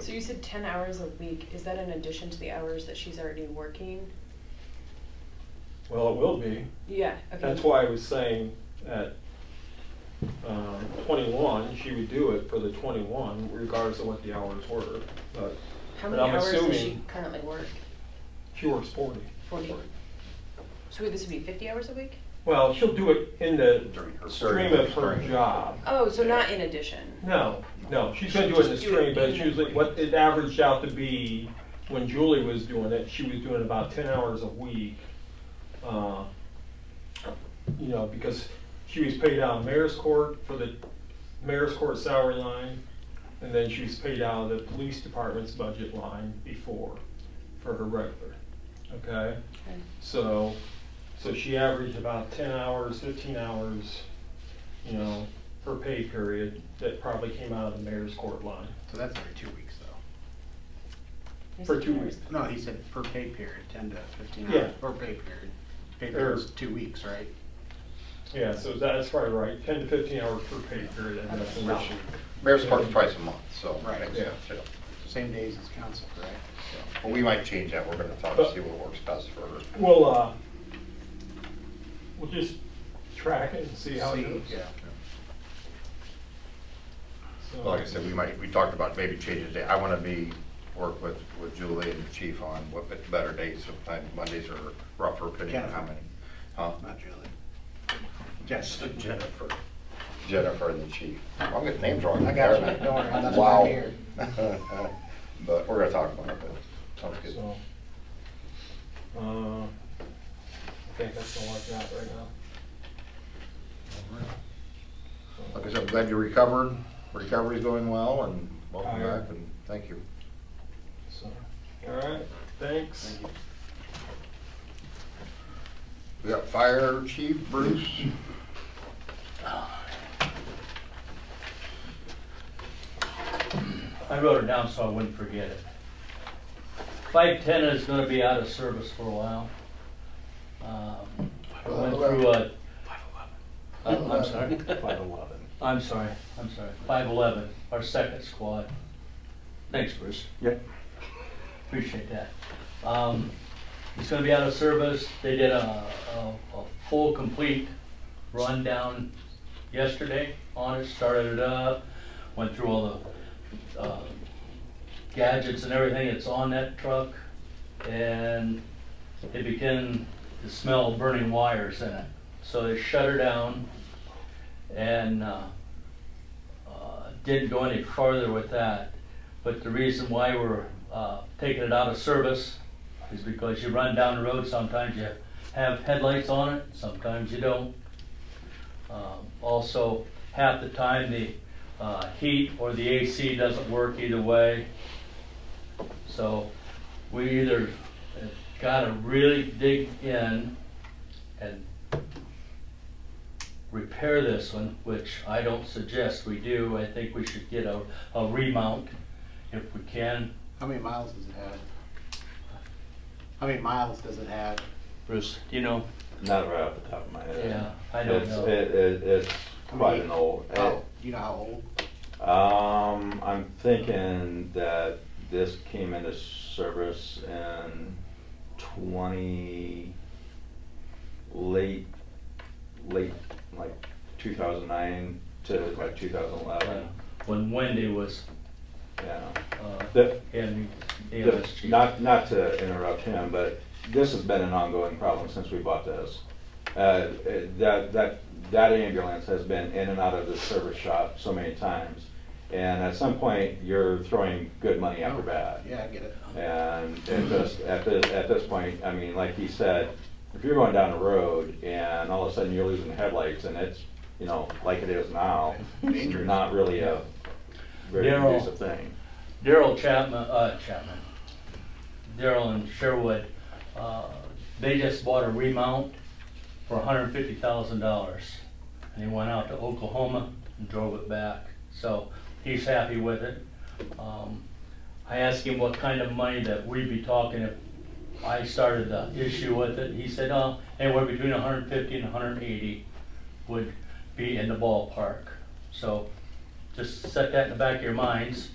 So you said ten hours a week, is that in addition to the hours that she's already working? Well, it will be. Yeah, okay. That's why I was saying at um, 21, she would do it for the 21 regardless of what the hours were. But How but many I'm hours does she assuming- currently work? she works 40. 40. So wait, this would be fifty hours a week? Well, she'll do it in the During her- stream of her during her- job. Oh, so not in addition? No, no, she's gonna do it in the Just do it stream, but it's in the- usually, what it averaged out to be, when Julie was doing it, she was doing about ten hours a week. uh, You know, because she was paid out of mayor's court for the mayor's court salary line, and then she was paid out of the police department's budget line before, for her regular, okay? Okay. So, so she averaged about ten hours, fifteen hours, you know, per pay period that probably came out of the mayor's court line. So that's every two weeks, though. You For said two 10 weeks. hours. No, he said per pay period, ten to fifteen Yeah. Er. hours, per pay period. Pay Or- period's two weeks, right? Yeah, so that's probably right, ten to fifteen hours per pay period, and that's an issue. Mayor's Court's twice a month, so. Right. makes Yeah. sense, yeah. Same days as council, correct? So- Well, we might change that, we're gonna talk, to see what works best for her. We'll, uh, we'll just track it and see how it goes. See, Yeah. So- Like I said, we might, we talked about maybe changing the day, I wanna be, work with, with Julie and the chief on what bet- better days, sometimes Mondays are rougher, depending on how many. Huh? Not Julie. Yes, Jennifer. Jennifer and the chief. I'm getting names wrong. I got you. Don't worry. That's why I'm Wow. here. But we're gonna talk about it, but sounds good. So, uh, I think that's all I've got right now. Like I said, I'm glad you recovered, recovery's going well, and welcome Tired. back, and thank you. So, all right, thanks. We got fire chief Bruce. I wrote it down so I wouldn't forget it. Five ten is gonna be out of service for a while. Um, I went through a. Uh, I'm I'm sorry. Five eleven. I'm sorry, I'm sorry. Five eleven, our second squad. Thanks, Bruce. Yep. Appreciate that. Um, He's gonna be out of service. They did a, a, a full, complete rundown yesterday on it, started it up, went through all the uh, gadgets and everything that's on that truck, and it began to smell burning wires in it. So they shut her down and uh, uh, didn't go any farther with that. But the reason why we're uh, taking it out of service is because you run down the road, sometimes you have headlights on it, sometimes you don't. Um, Also, half the time, the uh, heat or the AC doesn't work either way. So we either gotta really dig in and repair this one, which I don't suggest we do. I think we should get a, a remount if we can. How many miles does it have? How many miles does it have? Bruce, do you know? Not right off the top of my head. Yeah, I don't It's- know. It, it, it's quite an old. Oh, you know how old? Um, I'm thinking that this came into service in twenty, late, late, like two thousand nine to like two thousand eleven, When Wendy was, yeah. uh, The, in the the- MSG. Not, not to interrupt him, but this has been an ongoing problem since we bought this. Uh, it- That, that, that ambulance has been in and out of the service shop so many times. And at some point, you're throwing good money after bad. Oh, Yeah, I get it. And at this, at this, at this point, I mean, like he said, if you're going down the road and all of a sudden you're losing headlights and it's, you know, like it is now, it's Dangerous. not really a very Daryl. conducive thing. Daryl Chapman, uh, Chapman, Daryl and Sherwood, uh, they just bought a remount for hundred and fifty thousand dollars. And he went out to Oklahoma and drove it back, so he's happy with it. Um, I asked him what kind of money that we'd be talking if I started the issue with it. He said, uh, anywhere between $150 and hundred and eighty would be in the ballpark. So just set that in the back of your minds.